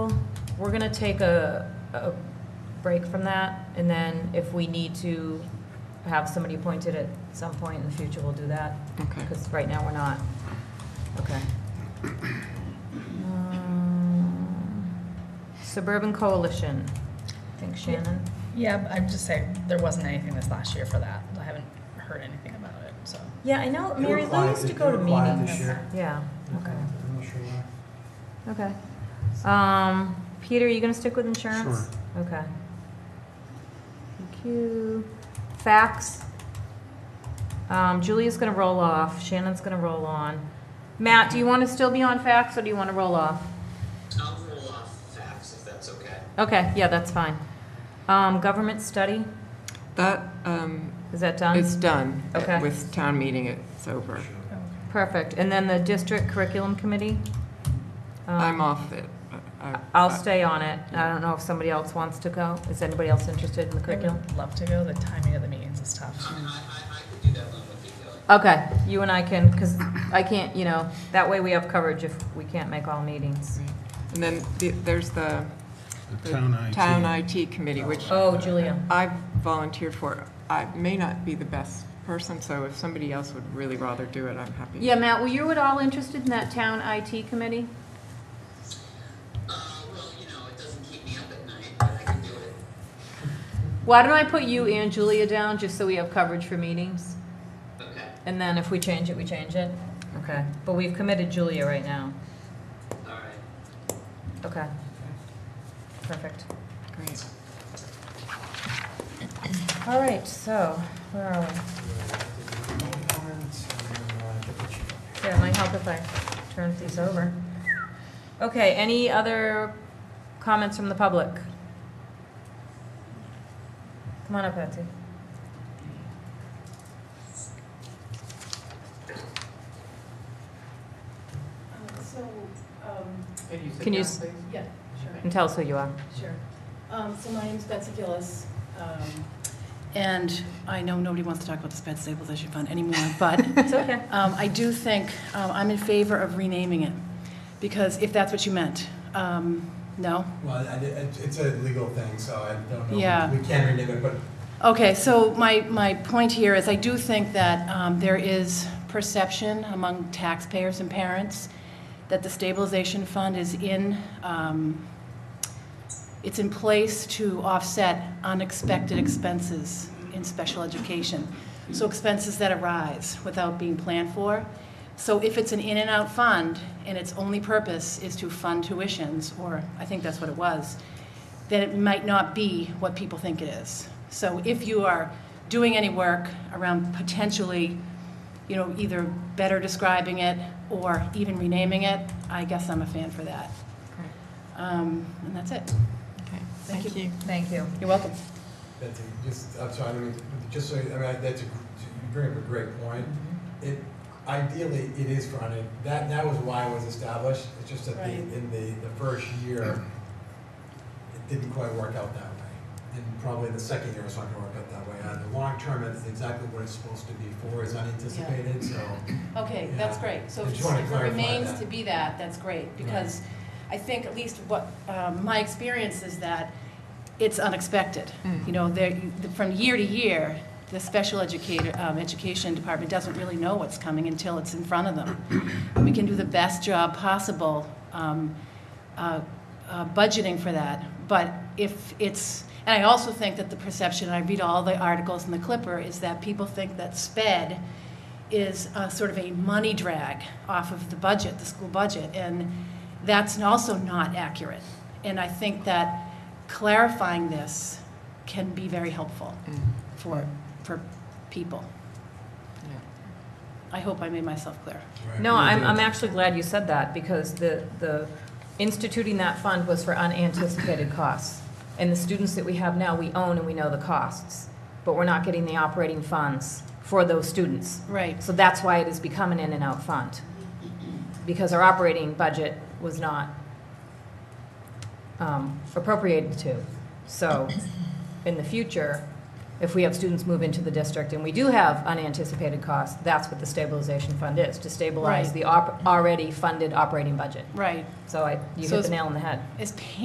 we're gonna take a, a break from that, and then if we need to have somebody appointed at some point in the future, we'll do that. Okay. Because right now, we're not. Okay. Um, Suburban Coalition, I think Shannon. Yeah, I'm just saying, there wasn't anything this last year for that. I haven't heard anything about it, so. Yeah, I know, They were Mary Lou quiet used to thi- go they to were quiet meetings. This year. Yeah, okay, I'm not sure okay. why. Um, Peter, are you gonna stick with insurance? Okay. Thank you. Fax. Um, Julia's gonna roll off, Shannon's gonna roll on. Matt, do you wanna still be on fax, or do you wanna roll off? I'll roll off facts if that's okay. Okay, yeah, that's fine. Um, government study, That, um, is that done? it's done. Okay. With town meeting, it's over. Oh, Perfect, and then the district curriculum committee? Um, I'm off it. I- I- I'll stay on it. I don't know if somebody else wants to go. Is anybody else interested in the I curriculum? would love to go. The timing of the meetings is I, tough. Uh, I, I could do that one with you, Kelly. Okay, you and I can, because I can't, you know, that way we have coverage if we can't make all meetings. And then the- there's the The town IT. Town IT Committee, which Oh, Julia. I've volunteered for. I may not be the best person, so if somebody else would really rather do it, I'm happy. Yeah, Matt, were you at all interested in that town IT committee? Uh, well, you know, it doesn't keep me up at night, but I can do it. Why don't I put you and Julia down, just so we have coverage for meetings? Okay, And then if we change it, we change it? Okay, but we've committed Julia right now. all right. Okay. Perfect. Great. All right, so, where are we? Yeah, it might help if I turn these over. Okay, any other comments from the public? Come on up, Patsy. So, um, Can you, s- yeah, sure, and tell us who you are. sure. Um, so my name's Betsy Gillis, um, and I know nobody wants to talk about the sped stabilization fund anymore, but It's okay. um, I do think, um, I'm in favor of renaming it, because if that's what you meant, um, no? Well, I- I- it- it's a legal thing, so I don't know. Yeah. We can rename it, but Okay, so my, my point here is I do think that um, there is perception among taxpayers and parents that the stabilization fund is in, um, it's in place to offset unexpected expenses in special education. So expenses that arise without being planned for. So if it's an in and out fund and its only purpose is to fund tuitions, or I think that's what it was, then it might not be what people think it is. So if you are doing any work around potentially, you know, either better describing it or even renaming it, I guess I'm a fan for that. Um, And that's it. Okay. Thank Thank you. Thank you. You're welcome. that's, a- just, I'm sorry, I don't mean to- just so, I mean, I- that's, a- you bring up a great point. It, ideally, it is for, un- that, that was why it was established. It's just that the, Right. in the, the first year, it didn't quite work out that way. And probably the second year it's not gonna work out that way. Uh, the long term, it's exactly what it's supposed to be for, is unanticipated, so. Okay, Yeah. that's great. So I if just wanted to if it clarify remains that. to be that, that's great, because I think at least what, um, my experience is that it's unexpected. You know, there, you- the- from year to year, the special educator, um, education department doesn't really know what's coming until it's in front of them. We can do the best job possible um, uh, uh, budgeting for that, but if it's, and I also think that the perception, and I read all the articles in the Clipper, is that people think that sped is uh, sort of a money drag off of the budget, the school budget, and that's also not accurate. And I think that clarifying this can be very helpful for, for people. Yeah. I hope I made myself clear. No, I'm, I'm actually glad you said that, because the, the instituting that fund was for unanticipated costs. And the students that we have now, we own and we know the costs, but we're not getting the operating funds for those students. Right, So that's why it has become an in-and-out fund, because our operating budget was not um, appropriated to. So in the future, if we have students move into the district and we do have unanticipated costs, that's what the stabilization fund is, to stabilize Right. the op- already funded operating budget. right. So I, you hit So the it's- nail on the head. As pa-